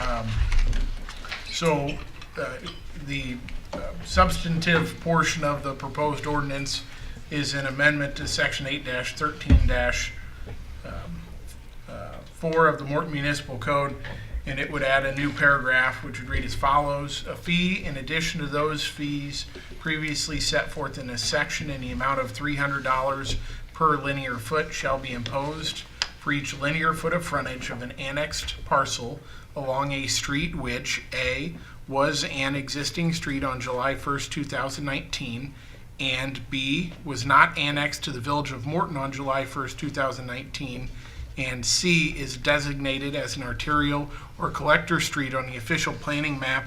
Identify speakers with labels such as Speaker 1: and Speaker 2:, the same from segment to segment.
Speaker 1: Um, So uh, the uh, substantive portion of the proposed ordinance is an amendment to section eight thirteen four of the Morton Municipal Code, and it would add a new paragraph which would read as follows. A fee in addition to those fees previously set forth in this section in the amount of three hundred dollars per linear foot shall be imposed for each linear foot of frontage of an annexed parcel along a street which, A, was an existing street on July first, two thousand nineteen, and B, was not annexed to the Village of Morton on July 1st, 2019, and C, is designated as an arterial or collector street on the official planning map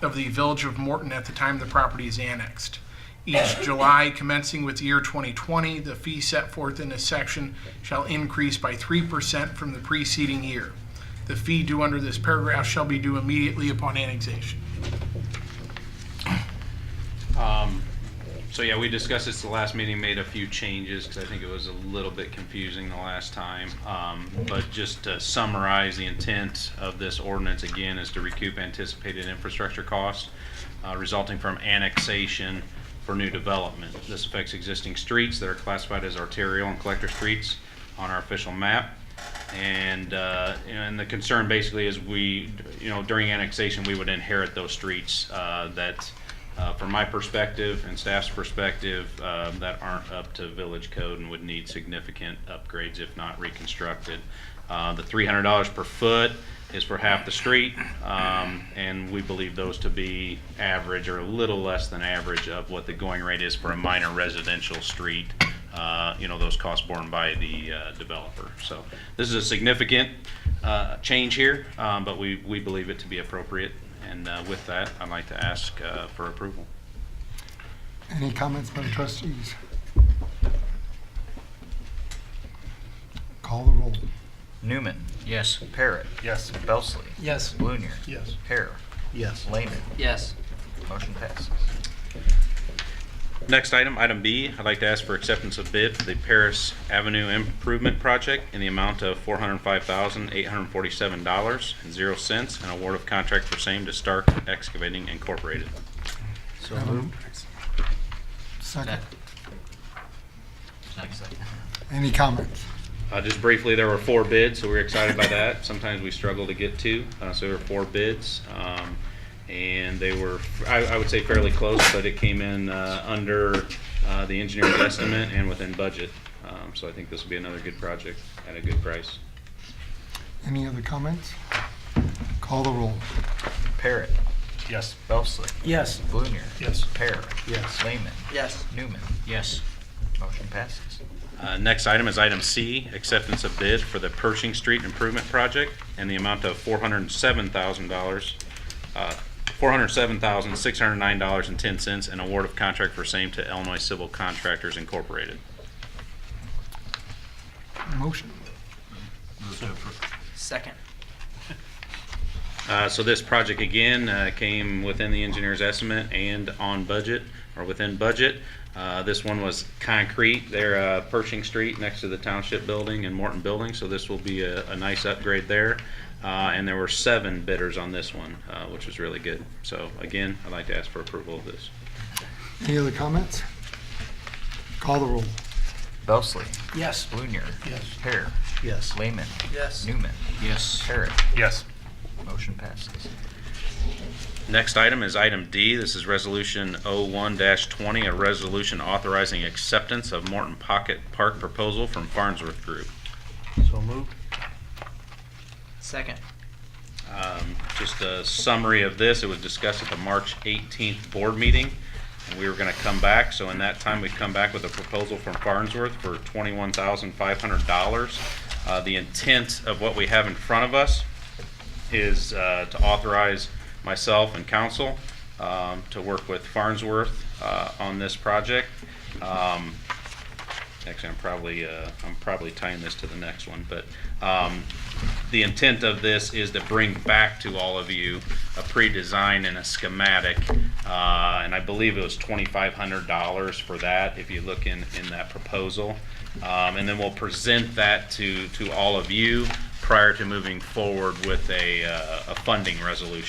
Speaker 1: of the Village of Morton at the time the property is annexed. Each July commencing with the year 2020, the fee set forth in this section shall increase by 3% from the preceding year. The fee due under this paragraph shall be due immediately upon annexation.
Speaker 2: So yeah, we discussed this the last meeting, made a few changes, because I think it was a little bit confusing the last time. Um, But just to summarize, the intent of this ordinance again is to recoup anticipated infrastructure costs uh, resulting from annexation for new development. This affects existing streets that are classified as arterial and collector streets on our official map. And, uh, and the concern basically is we, you know, during annexation, we would inherit those streets, uh, that, uh, from my perspective and staff's perspective, uh, that aren't up to village code and would need significant upgrades if not reconstructed. Uh, the three hundred dollars per foot is for half the street, um, and we believe those to be average or a little less than average of what the going rate is for a minor residential street. Uh, you know, those costs borne by the uh, developer. So this is a significant uh, change here, um, but we, we believe it to be appropriate. And uh, with that, I'd like to ask uh, for approval.
Speaker 3: Any comments by the trustees? Call the roll.
Speaker 4: Newman. Yes. Parrot. Yes. Belsley.
Speaker 5: Yes.
Speaker 4: Blunier.
Speaker 1: Yes.
Speaker 4: Hare.
Speaker 5: Yes.
Speaker 4: Lehman.
Speaker 5: Yes.
Speaker 4: Motion passes.
Speaker 2: Next item, item B, I'd like to ask for acceptance of bid for the Paris Avenue Improvement Project in the amount of four hundred and five thousand, eight hundred and forty-seven dollars and zero cents, and award of contract for same to Stark Excavating Incorporated.
Speaker 3: Have a- Second. Any comments?
Speaker 2: Uh, just briefly, there were four bids, so we were excited by that. Sometimes we struggle to get to, uh, so there were four bids. Um, and they were, I, I would say fairly close, but it came in, uh, under, uh, the engineer's estimate and within budget. Um, so I think this will be another good project at a good price.
Speaker 3: Any other comments? Call the roll.
Speaker 4: Parrot. Yes. Belsley.
Speaker 5: Yes.
Speaker 4: Blunier. Yes. Parrot. Yes. Lehman.
Speaker 5: Yes.
Speaker 4: Newman. Yes. Motion passes.
Speaker 2: Uh, Next item is item C, acceptance of bid for the Pershing Street Improvement Project and the amount of four hundred and seven thousand dollars, uh, four hundred and seven thousand, six hundred and nine dollars and ten cents, and award of contract for same to Illinois Civil Contractors Incorporated.
Speaker 3: Motion?
Speaker 5: Second.
Speaker 2: Uh, So this project, again, uh, came within the engineer's estimate and on budget, or within budget. Uh, This one was concrete, there, uh, Pershing Street, next to the Township Building and Morton Building, so this will be a a nice upgrade there. Uh, And there were seven bidders on this one, uh, which was really good. So again, I'd like to ask for approval of this.
Speaker 3: Any other comments? Call the roll.
Speaker 4: Belsley.
Speaker 5: Yes.
Speaker 4: Blunier. Yes. Hare. Yes. Lehman.
Speaker 5: Yes.
Speaker 4: Newman. Yes. Parrot.
Speaker 1: Yes.
Speaker 4: Motion passes.
Speaker 2: Next item is item D. This is Resolution 01-20, a resolution authorizing acceptance of Morton Pocket Park proposal from Farnsworth Group.
Speaker 5: Second.
Speaker 2: Um, Just a summary of this, it was discussed at the March 18th board meeting, and we were going to come back. So in that time, we've come back with a proposal from Farnsworth for $21,500. Uh, The intent of what we have in front of us is uh, to authorize myself and council um, to work with Farnsworth uh, on this project. Um, Actually, I'm probably, uh, I'm probably tying this to the next one, but, um, the intent of this is to bring back to all of you a pre-design and a schematic. Uh, and I believe it was twenty-five hundred dollars for that, if you look in, in that proposal. Um, and then we'll present that to, to all of you prior to moving forward with a, uh, a funding resolution.